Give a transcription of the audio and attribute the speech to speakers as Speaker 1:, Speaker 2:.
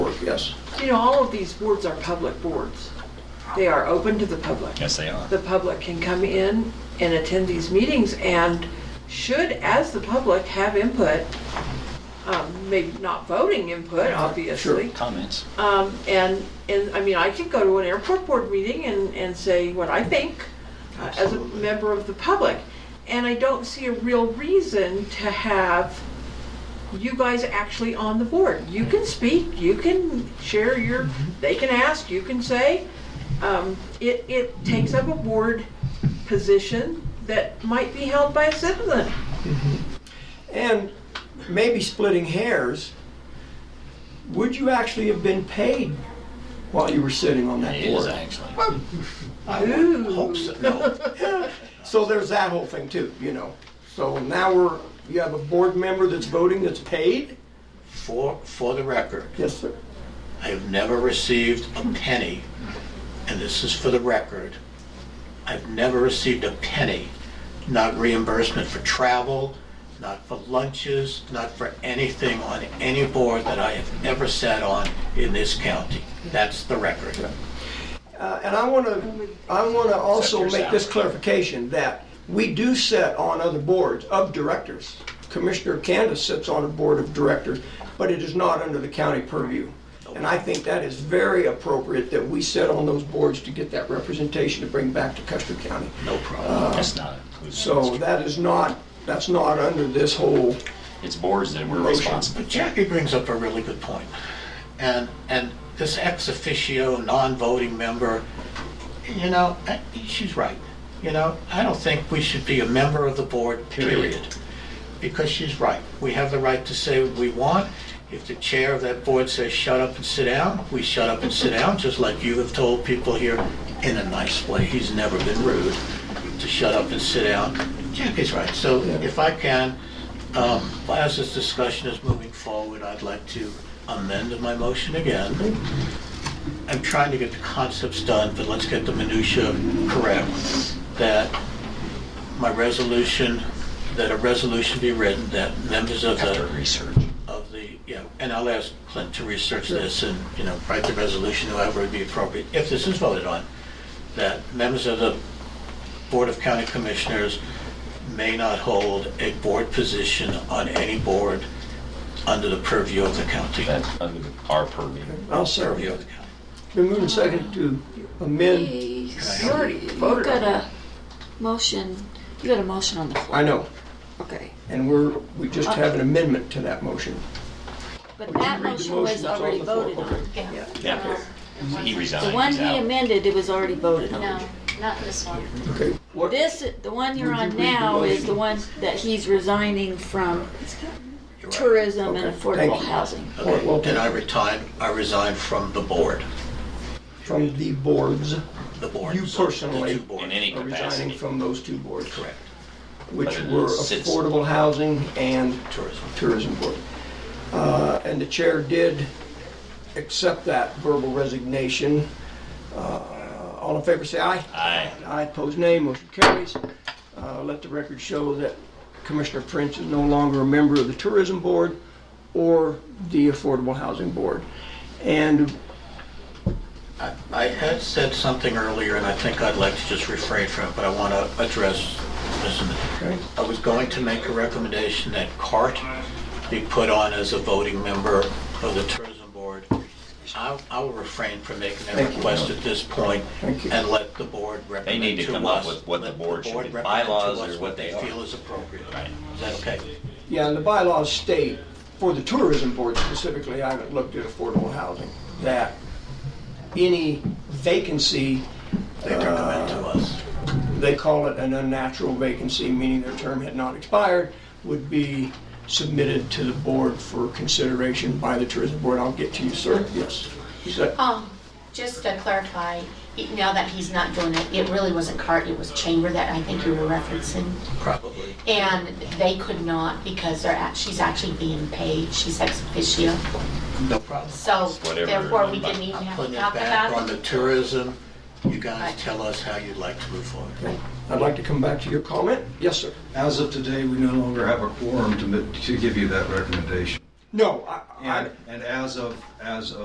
Speaker 1: yes.
Speaker 2: You know, all of these boards are public boards. They are open to the public.
Speaker 3: Yes, they are.
Speaker 2: The public can come in and attend these meetings and should, as the public, have input. Um, Maybe not voting input, obviously.
Speaker 3: Comments.
Speaker 2: Um, And, and, I mean, I could go to an airport board meeting and, and say what I think uh, as a
Speaker 1: Absolutely.
Speaker 2: member of the public. And I don't see a real reason to have you guys actually on the board. You can speak, you can share your, they can ask, you can say. Um, It, it takes up a board position that might be held by a citizen.
Speaker 1: And maybe splitting hairs, would you actually have been paid while you were sitting on that
Speaker 3: It is
Speaker 1: board?
Speaker 3: actually.
Speaker 1: I would hope so. No. So there's that whole thing too, you know. So now we're, you have a board member that's voting that's paid?
Speaker 4: For, for the record,
Speaker 1: Yes, sir.
Speaker 4: I have never received a penny, and this is for the record. I've never received a penny, not reimbursement for travel, not for lunches, not for anything on any board that I have ever sat on in this county. That's the record.
Speaker 1: Uh, And I want to, I want to also
Speaker 3: Except your
Speaker 1: make this
Speaker 3: salary.
Speaker 1: clarification that we do sit on other boards of directors. Commissioner Candace sits on a board of directors, but it is not under the county purview. And I think that is very appropriate that we sit on those boards to get that representation to bring back to Custer County.
Speaker 4: No problem.
Speaker 3: That's not included.
Speaker 1: So that is not, that's not under this whole,
Speaker 3: It's boards that we're responsible.
Speaker 4: But Jackie brings up a really good point. And, and this ex officio, non-voting member, you know, I- she's right. You know, I don't think we should be a member of the board, period. Because she's right. We have the right to say what we want. If the chair of that board says, shut up and sit down, we shut up and sit down, just like you have told people here in a nice way. He's never been rude to shut up and sit down. Jackie's right. So if I can, um, as this discussion is moving forward, I'd like to amend my motion again. I'm trying to get the concepts done, but let's get the minutia correct, that my resolution, that a resolution be written that members of
Speaker 3: After
Speaker 4: the,
Speaker 3: research.
Speaker 4: of the, you know, and I'll ask Clint to research this and, you know, write the resolution however would be appropriate, if this is voted on, that members of the Board of County Commissioners may not hold a board position on any board under the purview of the county.
Speaker 3: That's under our purview.
Speaker 1: I'll serve
Speaker 4: Purview
Speaker 1: you.
Speaker 4: of the county.
Speaker 1: Been moving second to amend,
Speaker 5: Please,
Speaker 4: I
Speaker 5: You
Speaker 2: already voted
Speaker 5: got a motion, you got a motion on the floor.
Speaker 1: I know,
Speaker 5: Okay.
Speaker 1: and we're, we just have an amendment to that motion.
Speaker 5: But
Speaker 1: Would you
Speaker 5: that
Speaker 1: read the
Speaker 5: motion
Speaker 1: motion
Speaker 5: was
Speaker 1: that's on
Speaker 5: already
Speaker 1: the floor?
Speaker 5: voted on.
Speaker 3: Yeah. He resigned.
Speaker 5: The one
Speaker 3: he's
Speaker 5: he
Speaker 3: out.
Speaker 5: amended, it was already voted
Speaker 6: No,
Speaker 5: on.
Speaker 6: not this one.
Speaker 1: Okay. What-
Speaker 5: This, the one you're
Speaker 1: Would you
Speaker 5: on
Speaker 1: read the
Speaker 5: now is
Speaker 1: motion?
Speaker 5: the one that he's resigning from tourism and
Speaker 1: Okay, thank
Speaker 5: affordable
Speaker 1: you.
Speaker 5: housing.
Speaker 1: Or- well-
Speaker 4: Okay, And I retired, I resigned from the board,
Speaker 1: From the boards.
Speaker 4: the board.
Speaker 1: You personally-
Speaker 4: The two boards.
Speaker 3: In any
Speaker 1: are resigning
Speaker 3: capacity.
Speaker 1: from those two boards.
Speaker 4: Correct,
Speaker 1: Which
Speaker 3: But it
Speaker 1: were
Speaker 3: is citizen.
Speaker 1: Affordable Housing and
Speaker 4: tourism.
Speaker 1: Tourism Board. Uh, And the chair did accept that verbal resignation. Uh, All in favor, say aye.
Speaker 3: Aye.
Speaker 1: Aye, opposed, nay, motion carries. Uh, Let the record show that Commissioner Prince is no longer a member of the Tourism Board or the Affordable Housing Board. And
Speaker 4: I- I had said something earlier, and I think I'd like to just refrain from it, but I want to address this. in a minute. I was going to make a recommendation that CART be put on as a voting member of the tourism board. I I will refrain from making that
Speaker 1: Thank you.
Speaker 4: request at this point
Speaker 1: Thank you.
Speaker 4: and let the board
Speaker 3: They
Speaker 4: recommend
Speaker 3: need to
Speaker 4: to
Speaker 3: come up
Speaker 4: us-
Speaker 3: with what the
Speaker 4: let
Speaker 3: board should be,
Speaker 4: recommend to
Speaker 3: bylaws
Speaker 4: us
Speaker 3: or what they are.
Speaker 4: feel is appropriate.
Speaker 3: Right.
Speaker 4: Is that okay?
Speaker 1: Yeah, and the bylaws state, for the tourism board specifically, I haven't looked at affordable housing, that any vacancy,
Speaker 4: They recommend to us.
Speaker 1: they call it an unnatural vacancy, meaning their term had not expired, would be submitted to the board for consideration by the tourism board. I'll get to you, sir. Yes. Is that-
Speaker 6: Um, just to clarify, e- now that he's not doing it, it really wasn't CART, it was Chamber that I think you were referencing.
Speaker 4: Probably.
Speaker 6: And they could not because they're, act- she's actually being paid, she's ex officio.
Speaker 4: No problem.
Speaker 6: So
Speaker 3: Whatever,
Speaker 6: therefore, we
Speaker 3: but
Speaker 6: didn't even
Speaker 4: I'm
Speaker 6: have
Speaker 4: putting
Speaker 6: to
Speaker 4: it
Speaker 6: talk
Speaker 4: back on
Speaker 6: about
Speaker 4: the
Speaker 6: it.
Speaker 4: tourism. You guys
Speaker 6: Right.
Speaker 4: tell us how you'd like to move forward.
Speaker 1: I'd like to come back to your comment. Yes, sir.
Speaker 7: As of today, we no longer have a quorum to, ma- to give you that recommendation.
Speaker 1: No, I- I,
Speaker 7: And, and as of, as of